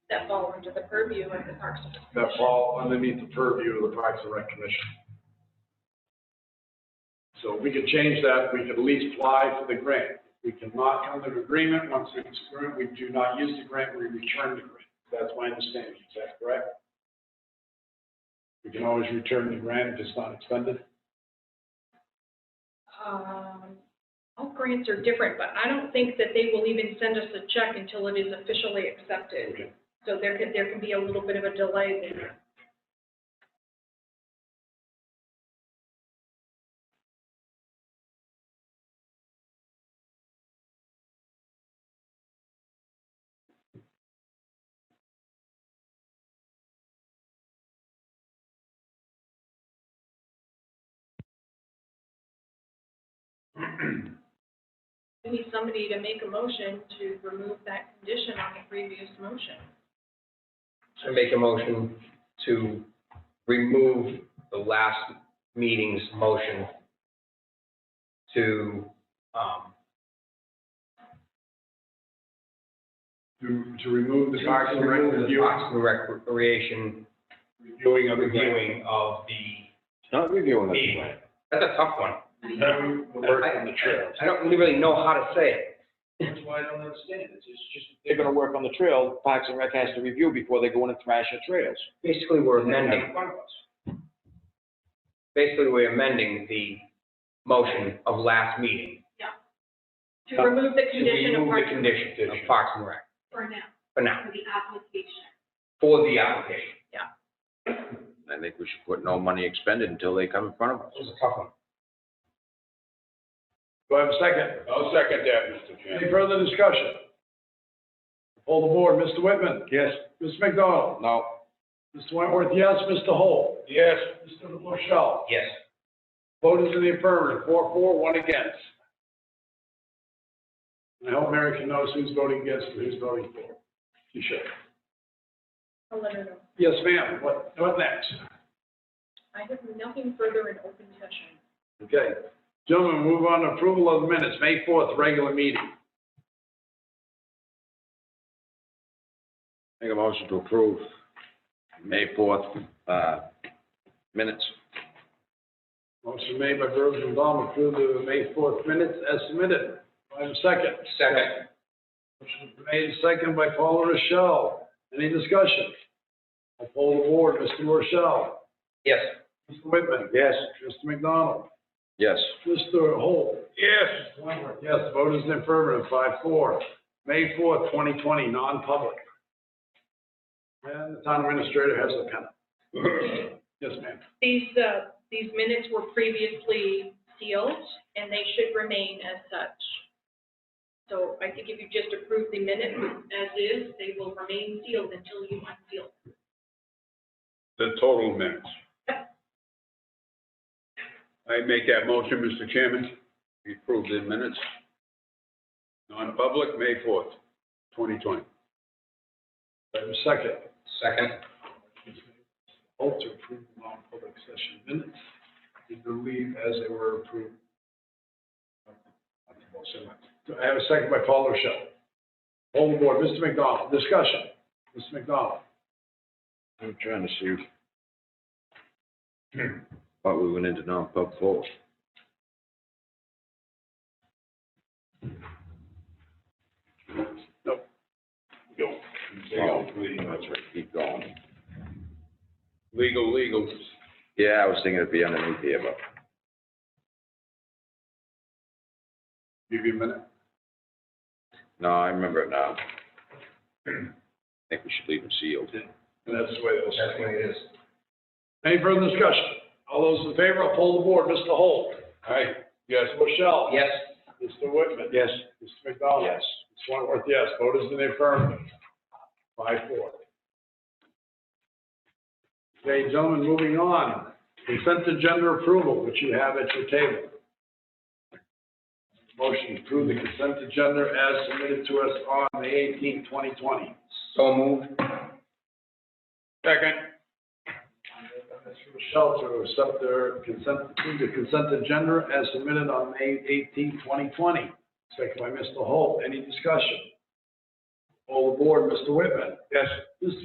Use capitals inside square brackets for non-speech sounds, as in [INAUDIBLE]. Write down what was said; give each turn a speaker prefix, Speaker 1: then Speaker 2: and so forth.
Speaker 1: that fall under the purview of the Parks and
Speaker 2: that fall underneath the purview of the Parks and Rec Commission. So we could change that, we could at least apply for the grant. We cannot come to an agreement, once we grant, we do not use the grant, we return the grant. That's my understanding, is that correct? We can always return the grant if it's not expended?
Speaker 1: Um, all grants are different, but I don't think that they will even send us a check until it is officially accepted.
Speaker 2: Okay.
Speaker 1: So there could, there can be a little bit of a delay there. We need somebody to make a motion to remove that condition on the previous motion.
Speaker 3: I make a motion to remove the last meeting's motion to, um,
Speaker 2: To, to remove the
Speaker 3: to
Speaker 2: Parks and Rec
Speaker 3: remove the
Speaker 2: review,
Speaker 3: Parks and Recreation
Speaker 2: reviewing of the grant.
Speaker 3: reviewing of the
Speaker 4: It's not reviewing
Speaker 3: meeting.
Speaker 4: it.
Speaker 3: That's a tough one. Uh,
Speaker 2: Remove The work on the trails.
Speaker 3: I don't really know how to say it.
Speaker 2: That's why I don't understand it. It's just.
Speaker 4: They're gonna work on the trail, Parks and Rec has to review before they go in and thrash the trails.
Speaker 3: Basically, we're amending, basically, we're amending the motion of last meeting
Speaker 1: To remove the
Speaker 3: to
Speaker 1: condition of
Speaker 3: remove the
Speaker 1: Parks and Rec
Speaker 3: condition of Parks and Rec
Speaker 1: for now,
Speaker 3: for now,
Speaker 1: for the application.
Speaker 3: for the application.
Speaker 5: I think we should put no money expended until they come in front of us.
Speaker 3: It's a tough one.
Speaker 2: Do I have a second?
Speaker 6: I'll second that, Mr. Chairman.
Speaker 2: Any further discussion? Hold the board, Mr. Whitman,
Speaker 4: Yes.
Speaker 2: Mr. McDonald,
Speaker 4: No.
Speaker 2: Mr. Wentworth, yes, Mr. Holt,
Speaker 6: Yes,
Speaker 2: Mr. Rochelle.
Speaker 3: Yes.
Speaker 2: Vote is in the affirmative, four, four, one against. And I hope Mary can notice who's voting against and who's voting for. She should.
Speaker 1: I'll let her know.
Speaker 2: Yes, ma'am, what, what next?
Speaker 1: I have nothing further in open session.
Speaker 2: Okay. Gentlemen, move on to approval of the minutes, May fourth, regular meeting.
Speaker 5: Make a motion to approve May 4th, uh, minutes.
Speaker 2: Motion made by Virgil Baum, approve the May fourth minutes as submitted. Do I have a second?
Speaker 3: Second.
Speaker 2: Motion made second by Paul Rochelle. Any discussion? I poll the board. Mr. Rochelle.
Speaker 3: Yes.
Speaker 2: Mr. Whitman.
Speaker 4: Yes.
Speaker 2: Mr. McDonald.
Speaker 5: Yes.
Speaker 2: Mr. Holt.
Speaker 6: yes.
Speaker 2: Mr. Wentworth. Yes, vote is in affirmative, five four. May fourth, twenty twenty, non-public. And the town administrator has the pen.
Speaker 6: [CLEARS THROAT]
Speaker 2: Yes, ma'am.
Speaker 1: These, uh, these minutes were previously sealed, and they should remain as such. So I think if you just approve the minutes as is, they will remain sealed until you unseal.
Speaker 6: The total minutes. I make that motion, Mr. Chairman. We approve the minutes. Non-public, May 4th, 2020.
Speaker 2: I have a second.
Speaker 3: Second.
Speaker 2: Holt to approve the non-public session minutes. We believe as they were approved. I have a second by Paul Rochelle. Hold the board, Mr. McDonald, discussion. Mr. McDonald,
Speaker 5: I'm trying to see. Thought we went into non-pub full.
Speaker 6: Go.
Speaker 5: Oh,
Speaker 6: Legal,
Speaker 5: That's
Speaker 6: legal.
Speaker 5: right, keep going.
Speaker 6: Legal, legal.
Speaker 5: Yeah, I was thinking it'd be underneath here, but
Speaker 2: give you a minute.
Speaker 5: no, I remember it now. [CLEARS THROAT] I think we should leave them sealed.
Speaker 2: And that's the way it'll
Speaker 3: That's
Speaker 2: stay.
Speaker 3: what it is.
Speaker 2: Any further discussion? All those in favor, I'll poll the board, Mr. Holt,
Speaker 6: Aye, yes.
Speaker 2: Mr. Rochelle.
Speaker 3: Yes.
Speaker 2: Mr. Whitman.
Speaker 4: Yes.
Speaker 2: Mr. McDonald.
Speaker 5: Yes.
Speaker 2: Mr. Wentworth, yes. Vote is in the affirmative. Five, four. Okay, gentlemen, moving on. Consent agenda approval, which you have at your table. Motion to approve the consent agenda as submitted to us on the eighteenth, twenty twenty.
Speaker 3: So moved.
Speaker 6: Second.
Speaker 2: Mr. Rochelle to accept their consent, approve the consent agenda as submitted on May 18, 2020. Second by Mr. Holt. Any discussion? All aboard, Mr. Whitman.
Speaker 6: Yes.